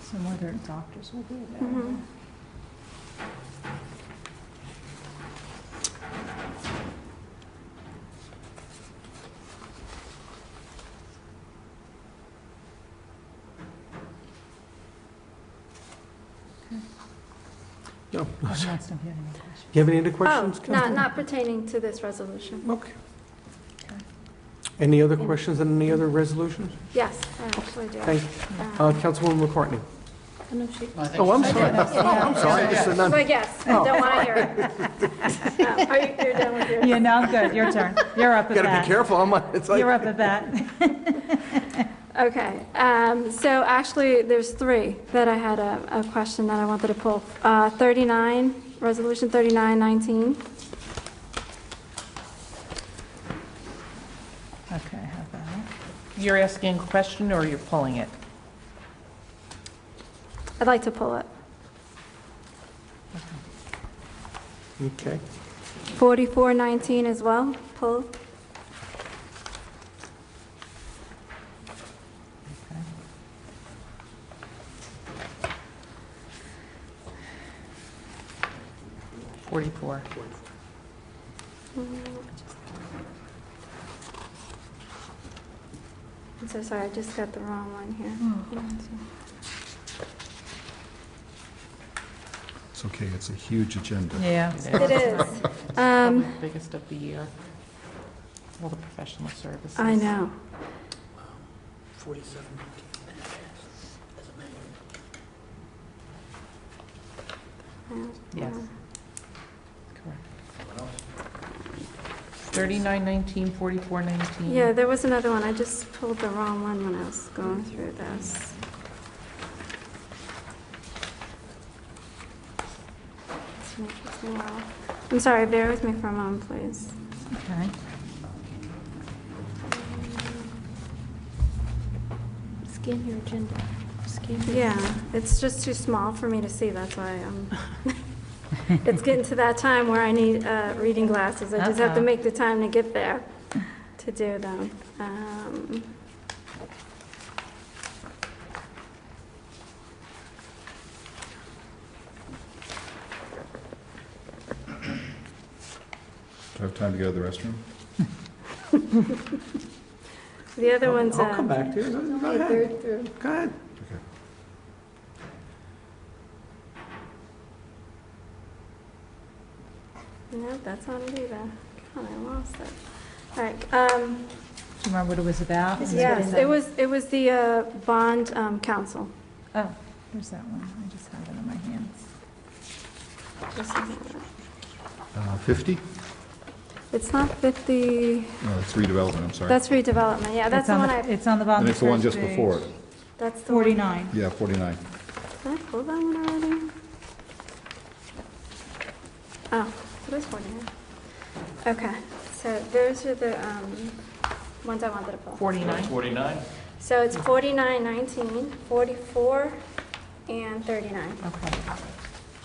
So whether doctors will be available. Mhm. No. But Oh, I don't have any questions. You have any other Oh, questions? Ken? not, not pertaining to this resolution. Okay. Okay. Any other questions on any other resolutions? Yes, I actually do. Thank, Uh, uh, Councilwoman McCartney. Oh, Oh, I'm sorry. Oh, I'm sorry. This is not- But yes, I don't want to hear it. Oh, Are you, you're done with your? Yeah, no, I'm good, your turn. You're up at Gotta be that. careful. I'm, on- it's You're like, up at that. Okay, um, so actually, there's three that I had a, a question that I wanted to pull. Uh, 39, Resolution 3919. Okay, I have that. You're asking a question or you're pulling it? I'd like to pull it. okay. 4419 as well, pull. Forty-four. I'm so sorry, I just got the wrong one Mm-hmm. here. It's okay, it's a huge agenda. Yeah. It is. Probably Um, the biggest of the year. All the professional services. I know. Yes. Correct. Thirty-nine nineteen, forty-four nineteen. Yeah, there was another one, I just pulled the wrong one when I was going through this. It's an interesting one. I'm sorry, bear with me for a moment, please. Okay. Scan your agenda. Scan your Yeah, it's just too small for me to see, that's why I'm, it's getting to that time where I need uh, reading glasses. I just have Uh-oh. to make the time to get there to do them. Um, Do I have time to go to the restroom? The other one's, I'll come uh, back to you. Go- Go ahead. Go ahead. Okay. no, that's not it either. God, I lost it. All right, um, Do you remember what it was about? This is what yes, it was, it was the uh, bond um, council. Oh, there's that one. I just have it in my hands. Just a minute. Uh, 50? It's not 50, No, that's redevelopment, I'm sorry. that's redevelopment, yeah, that's It's the on one I, It's on the bottom And of it's the the one first just before it. page. that's the one. 49. Yeah, 49. Did I pull that one already? Oh, it is one here. Okay, so those are the um, ones I wanted to pull. Forty-nine. Forty-nine? So it's 49, 19, 44, and 39. Okay.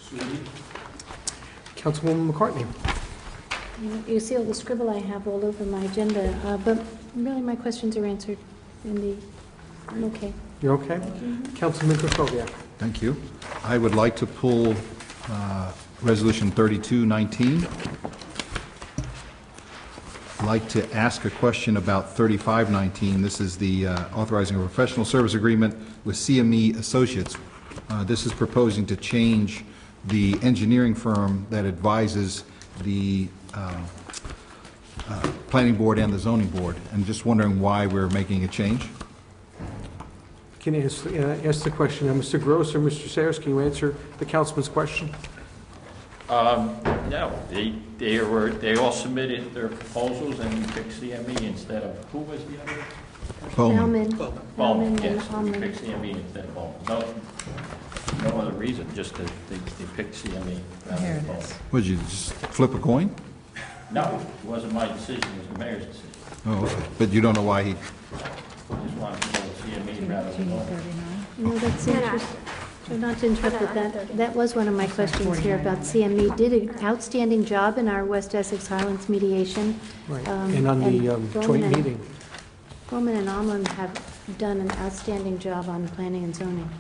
Sweetie? Councilwoman McCartney. You- You see all the scribble I have all over my agenda, uh, but really my questions are answered in the, I'm okay. You okay? Councilman Krokoviac. Thank you. I would like to pull uh, Resolution 3219. I'd Like to ask a question about 3519. This is the uh, authorizing a professional service agreement with CME Associates. Uh, This is proposing to change the engineering firm that advises the um, uh, planning board and the zoning board. I'm just wondering why we're making a change. Can you ask, uh, ask the question? Now, Mr. Gross or Mr. Sayers, can you answer the councilman's question? No, they, they were, they all submitted their proposals and we picked CME E instead of, who was the other? Bellman. Bowman, and yes, we Almond. picked CME E instead of Bowman. No, no other reason, just that they, they picked CME E rather Here than it Bowman. is. Would you just flip a coin? No, it wasn't my decision, it was the mayor's decision. Oh, okay. but you don't know why he, We just wanted to go with CME rather than Bowman. 39. No, that's No, no. interesting. So Not to interrupt with that, that was one of my questions here about CME. Did an outstanding job in our West Essex Highlands mediation. Right. um, And on the um, Bowman joint and- meeting. Bowman and Almond have done an outstanding job on planning and zoning.